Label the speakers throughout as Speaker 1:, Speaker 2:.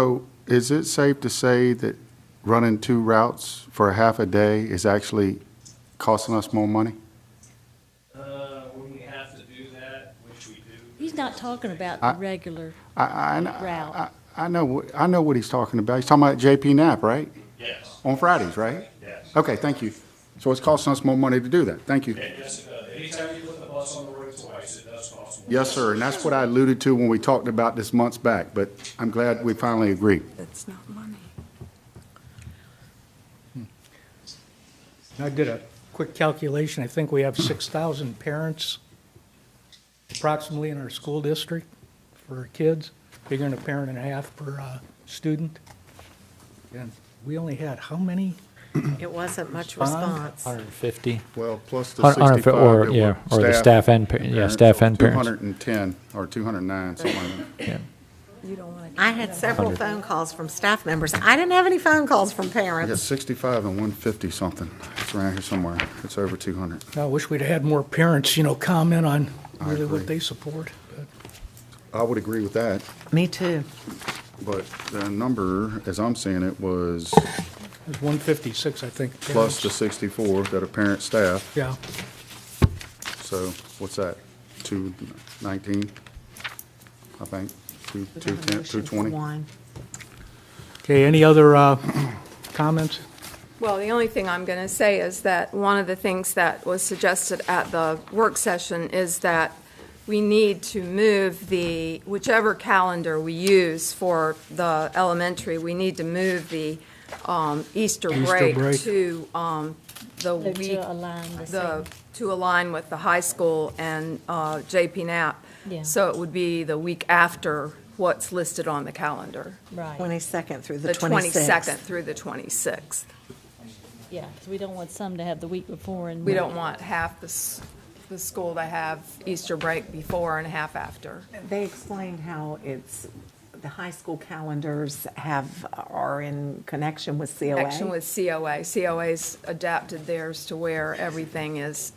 Speaker 1: So is it safe to say that running two routes for a half a day is actually costing us more money?
Speaker 2: Uh, when we have to do that, which we do.
Speaker 3: He's not talking about
Speaker 1: I-
Speaker 3: the regular,
Speaker 1: I, I,
Speaker 3: Route.
Speaker 1: I- I know, what- I know what he's talking about. He's talking about JP Knapp, right?
Speaker 2: Yes,
Speaker 1: On Fridays, right?
Speaker 2: yes.
Speaker 1: Okay, thank you. So it's costing us more money to do that. Thank you.
Speaker 2: And yes, it does. Anytime you put the bus on the road twice, it does cost more.
Speaker 1: Yes, sir, and that's what I alluded to when we talked about this months back, but I'm glad we finally agreed.
Speaker 4: That's not money.
Speaker 5: I did a quick calculation. I think we have 6,000 parents approximately in our school district for our kids, bigger than a parent and a half per uh, student. And we only had how many?
Speaker 4: It wasn't much
Speaker 5: Respond?
Speaker 4: response.
Speaker 6: 150.
Speaker 1: Well, plus the
Speaker 6: Or- or if it-
Speaker 1: 65
Speaker 6: or-
Speaker 1: that
Speaker 6: yeah,
Speaker 1: were
Speaker 6: or the staff and pa- yeah, staff
Speaker 1: so
Speaker 6: and parents.
Speaker 1: 210 or 209, something like that.
Speaker 4: I had several phone calls from staff members. I didn't have any phone calls from
Speaker 1: I got
Speaker 4: parents.
Speaker 1: 65 and 150 something. It's around here somewhere. It's over 200.
Speaker 5: I wish we'd had more parents, you know, comment on
Speaker 1: I
Speaker 5: really
Speaker 1: agree.
Speaker 5: what they support. but-
Speaker 1: I would agree with that,
Speaker 4: Me too.
Speaker 1: but the number, as I'm seeing it, was
Speaker 5: It was 156, I think.
Speaker 1: plus the
Speaker 5: parents.
Speaker 1: 64 that are parent staff.
Speaker 5: Yeah,
Speaker 1: So what's that? 219, I think, Two- 210, 220?
Speaker 5: okay, any other uh, comments?
Speaker 7: Well, the only thing I'm going to say is that one of the things that was suggested at the work session is that we need to move the, whichever calendar we use for the elementary, we need to move the um, Easter
Speaker 5: Easter
Speaker 7: break
Speaker 5: break.
Speaker 7: to um, the
Speaker 3: to
Speaker 7: week,
Speaker 3: align the
Speaker 7: the,
Speaker 3: same.
Speaker 7: to align with the high school and uh, JP Knapp.
Speaker 3: Yeah.
Speaker 7: So it would be the week after what's listed on the calendar,
Speaker 3: Right,
Speaker 4: 22nd through
Speaker 7: the
Speaker 4: the
Speaker 7: 22nd
Speaker 4: 26th.
Speaker 7: through the 26th.
Speaker 3: yeah, 'cause we don't want some to have the week before and.
Speaker 7: We don't want half the, s- the school to have Easter break before and half after.
Speaker 4: They explained how it's, the high school calendars have, are in connection with COA.
Speaker 7: Action with COA. COA's adapted theirs to where everything is,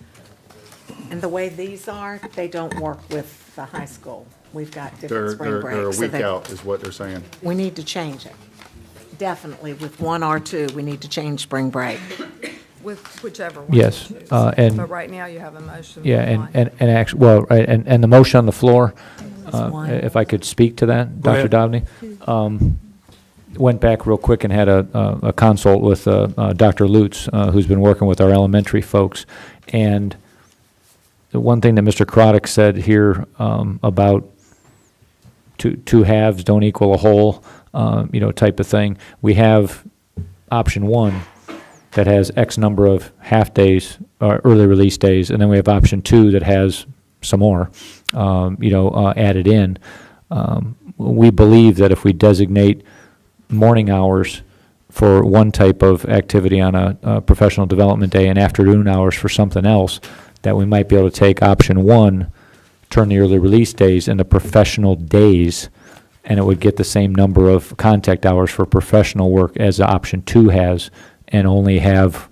Speaker 4: And the way these are, they don't work with the high school. We've got different
Speaker 1: They're,
Speaker 4: spring
Speaker 1: they're
Speaker 4: breaks.
Speaker 1: they're a
Speaker 4: so
Speaker 1: week
Speaker 4: they-
Speaker 1: out is what they're saying.
Speaker 4: We need to change it. Definitely with one or two, we need to change spring break.
Speaker 7: with whichever one.
Speaker 6: Yes,
Speaker 7: you choose.
Speaker 6: uh, and-
Speaker 7: But right now you have a motion.
Speaker 6: Yeah,
Speaker 7: for
Speaker 6: and,
Speaker 7: one.
Speaker 6: and, and actually, well, right, and, and the motion on the floor, uh,
Speaker 4: one.
Speaker 6: if I could speak to that,
Speaker 5: Go
Speaker 6: Dr.
Speaker 5: ahead.
Speaker 6: Dobney. Um, Went back real quick and had a, a- a consult with uh, uh, Dr. Lutz, uh, who's been working with our elementary folks. And the one thing that Mr. Crotick said here um, about two, two halves don't equal a whole, um, you know, type of thing. We have option one that has X number of half days or early release days, and then we have option two that has some more, um, you know, uh, added in. Um, we believe that if we designate morning hours for one type of activity on a, uh professional development day and afternoon hours for something else, that we might be able to take option one, turn the early release days into professional days, and it would get the same number of contact hours for professional work as option two has, and only have,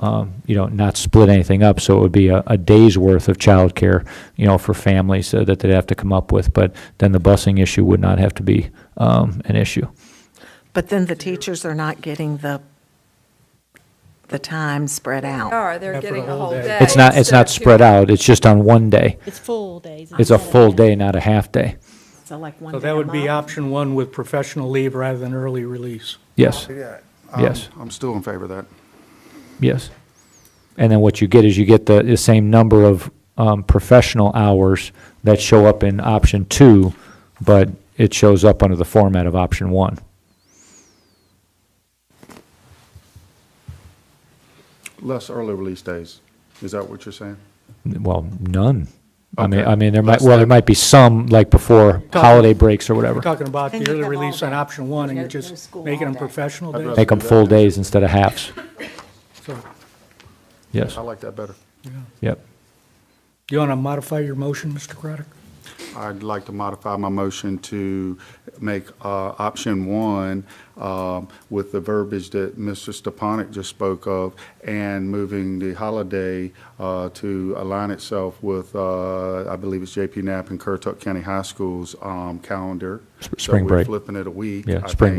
Speaker 6: um, you know, not split anything up, so it would be a, a day's worth of childcare, you know, for families uh, that they'd have to come up with, but then the busing issue would not have to be, um, an issue.
Speaker 4: But then the teachers are not getting the, the time spread
Speaker 7: They
Speaker 4: out.
Speaker 7: Are, they're
Speaker 5: Not for
Speaker 7: getting
Speaker 5: the
Speaker 7: a
Speaker 5: whole
Speaker 7: whole
Speaker 5: day.
Speaker 7: day.
Speaker 6: It's not, it's
Speaker 7: instead
Speaker 6: not
Speaker 7: of two
Speaker 6: spread out, it's just on one day.
Speaker 3: It's full days.
Speaker 6: It's a
Speaker 3: instead of
Speaker 6: full
Speaker 3: half.
Speaker 6: day, not a half day.
Speaker 4: So like one
Speaker 5: So
Speaker 4: day
Speaker 5: that
Speaker 4: a
Speaker 5: would be
Speaker 4: month.
Speaker 5: option one with professional leave rather than early release.
Speaker 6: Yes,
Speaker 1: I'm-
Speaker 6: Yes.
Speaker 1: I'm still in favor of that.
Speaker 6: yes. And then what you get is you get the, the same number of, um, professional hours that show up in option two, but it shows up under the format of option one.
Speaker 1: Less early release days. Is that what you're saying?
Speaker 6: Well, none. I mean,
Speaker 1: Okay.
Speaker 6: I mean, there might,
Speaker 1: Less
Speaker 6: well, there
Speaker 1: than-
Speaker 6: might be some, like before holiday breaks or
Speaker 5: We're
Speaker 6: whatever.
Speaker 5: talking about
Speaker 4: Then
Speaker 5: the
Speaker 4: you
Speaker 5: early
Speaker 4: have all
Speaker 5: release on
Speaker 4: day.
Speaker 5: option one, and
Speaker 4: No-
Speaker 5: you're
Speaker 4: no
Speaker 5: just
Speaker 4: school
Speaker 5: making them
Speaker 4: all day.
Speaker 5: professional
Speaker 1: I'd
Speaker 5: days.
Speaker 1: rather-
Speaker 6: Make them full days instead of halves.
Speaker 5: So,
Speaker 6: Yes,
Speaker 1: I like that better.
Speaker 6: yep.
Speaker 5: you want to modify your motion, Mr. Craddock?
Speaker 1: I'd like to modify my motion to make uh, option one um, with the verbiage that Mr. Stepanek just spoke of and moving the holiday uh, to align itself with, uh, I believe it's JP Knapp and Currituck County High School's um, calendar.
Speaker 6: Spring break.
Speaker 1: So we're flipping it a week.
Speaker 6: Yeah,
Speaker 1: I
Speaker 6: spring
Speaker 1: think.